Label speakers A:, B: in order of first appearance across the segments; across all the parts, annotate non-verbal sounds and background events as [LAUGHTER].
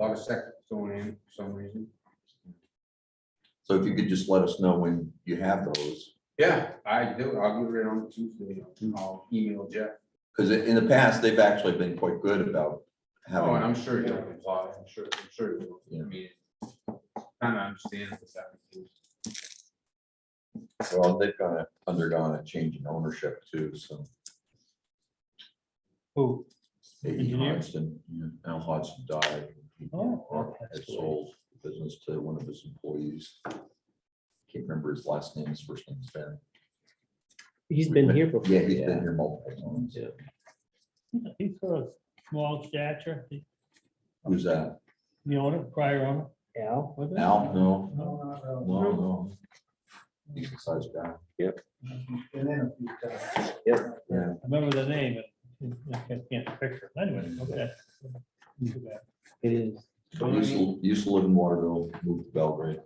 A: lot of sections going in for some reason.
B: So if you could just let us know when you have those,
A: Yeah, I do. I'll get it on Tuesday. I'll email Jeff.
B: because in the past, they've actually been quite good about
A: Oh, and
B: having,
A: I'm sure he'll comply. I'm sure, I'm sure he will.
B: Yeah.
A: I mean, kind of understand what's happening.
B: well, they've gone, undergone a change in ownership too, so.
C: Who?
B: A.E.
C: Engineer?
B: Hodgson, Al Hodgson died. He
C: Oh,
B: Had
C: that's
B: sold the business to one of his employees. Can't remember his last name, his first name's Ben.
D: He's been here before.
B: Yeah, he's been here multiple times.
D: Yeah.
C: He's sort of small stature, the-
B: Who's that?
C: the owner, prior owner.
D: Al,
C: was it?
B: Al? No,
C: No,
B: no, no. He's a size guy. Yeah.
C: I remember the name, but I can't- can't picture. it. Anyway, okay. Too bad.
D: it is.
A: So
B: Used
A: in
B: to, used to live in Waterville, moved to Belgrade.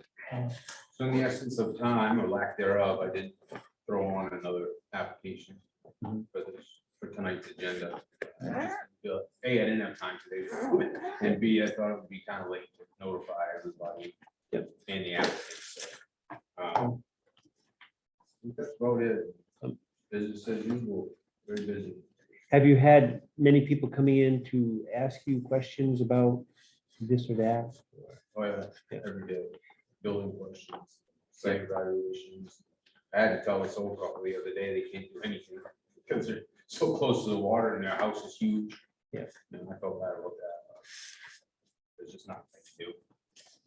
A: so in the essence of time or lack thereof, I did throw on another application for this, for tonight's agenda. A, I didn't have time today, and B, I thought it would be kind of late to notify everybody.
D: Yep.
A: And the applicants. so, um, I think That's about it. Business as usual, very busy.
D: Have you had many people coming in to ask you questions about this or that?
A: Oh, yeah, every day, building questions, site evaluations. I had to tell this old couple the other day, they can't do anything because they're so close to the water and their house is huge.
D: Yeah.
A: And I felt bad about that. There's just nothing to do.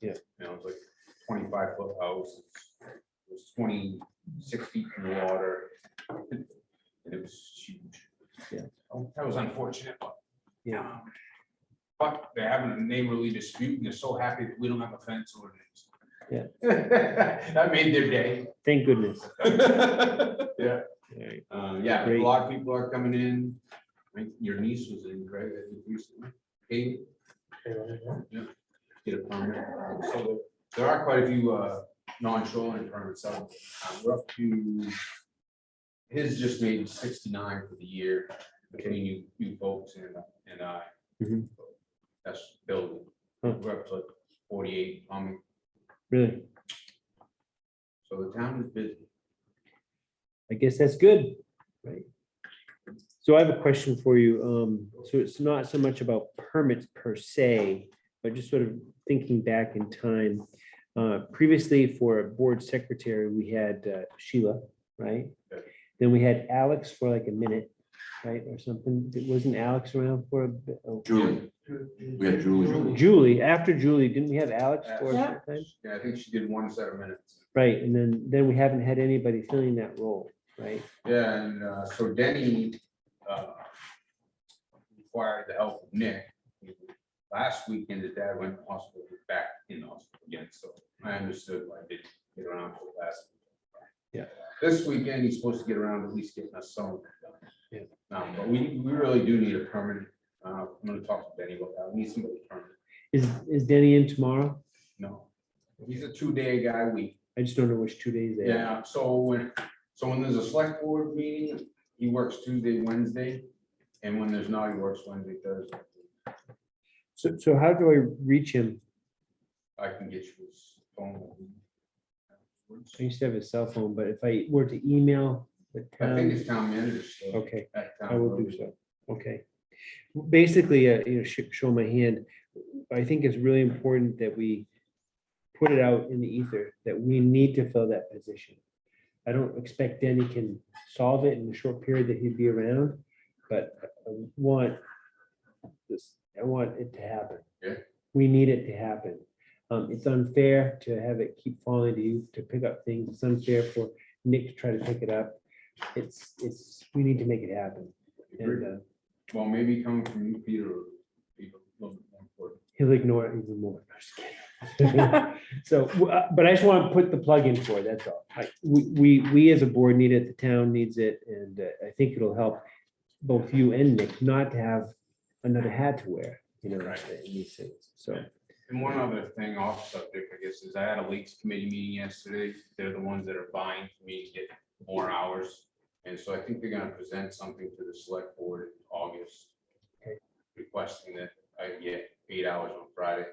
D: Yeah.
A: You know, it's like twenty-five foot house, it was twenty-six feet in the water. And it was huge.
D: Yeah.
A: That was unfortunate, but
D: Yeah,
A: um, But they're having a neighborly dispute and they're so happy that we don't have a fence ordinance. [LAUGHS]
D: Yeah.
A: That made their day. [LAUGHS]
D: thank goodness.
A: Yeah,
D: Alright.
A: uh, yeah, a
D: Great.
A: lot of people are coming in. I think Your niece was in, right? I think recently. Kate? Yeah. Get a permit. Um, So there are quite a few uh, non-shoreline permits out. Uh, We're up to, his just made sixty-nine for the year between you, you folks and, and I.
D: Mhm.
A: That's building.
D: Huh.
A: We're up to like forty-eight. Um,
D: Really,
A: so the town is busy.
D: I guess that's good. Right. So I have a question for you. Um, so it's not so much about permits per se, but just sort of thinking back in time. Uh, previously for a board secretary, we had uh, Sheila, right?
A: Yeah.
D: Then we had Alex for like a minute, right, or something. It Wasn't Alex around for a bit? Oh,
B: Julie, we had Julie.
D: Julie, after Julie, didn't we have Alex
A: Uh,
D: for a
A: Yeah.
D: short time?
A: Yeah, I think she did one set of minutes.
D: Right, and then, then we haven't had anybody filling that role, right?
A: Yeah, and uh, so Denny uh, required the help of Nick. Last weekend, his dad went to hospital, he's back in the hospital again, so I understood why he didn't get around for last.
D: Yeah.
A: This weekend, he's supposed to get around at least getting us some. of
D: Yeah.
A: it done. Um, But we, we really do need a permanent, uh, I'm gonna talk to Denny about that, we need somebody permanent,
D: Is, is Denny in tomorrow?
A: no. He's a two-day guy week.
D: I just don't know which two days they are.
A: Yeah, so when, so when there's a select board meeting, he works Tuesday, Wednesday, and when there's not, he works Wednesday, Thursday.
D: So, so how do I reach him?
A: I can get you his phone.
D: I used to have his cell phone, but if I were to email
A: I
D: the
A: think
D: town,
A: it's town manager. so
D: okay,
A: at town
D: I will do
A: manager.
D: so. Okay. Basically, uh, you know, sh- show my hand. I think it's really important that we put it out in the ether that we need to fill that position. I don't expect Denny can solve it in the short period that he'd be around, but I want this, I want it to happen.
A: Yeah.
D: We need it to happen. Um, it's unfair to have it keep falling to you to pick up things. It's unfair for Nick to try to pick it up. It's, it's, we need to make it happen. And uh,
A: Well, maybe coming from you, Peter, would be a little bit more important.
D: he'll ignore it even more. No, just kidding. So, w- uh, but I just want to put the plug in for it, that's all. Like, we, we, we as a board need it, the town needs it, and uh, I think it'll help both you and Nick not to have another hat to wear, you know,
A: Right.
D: in these things, so.
A: And one other thing off subject, I guess, is I had a leaks committee meeting yesterday. They're the ones that are buying for me to get more hours. And so I think they're gonna present something to the select board in August.
D: Okay.
A: Requesting that uh, yeah, eight hours on Friday.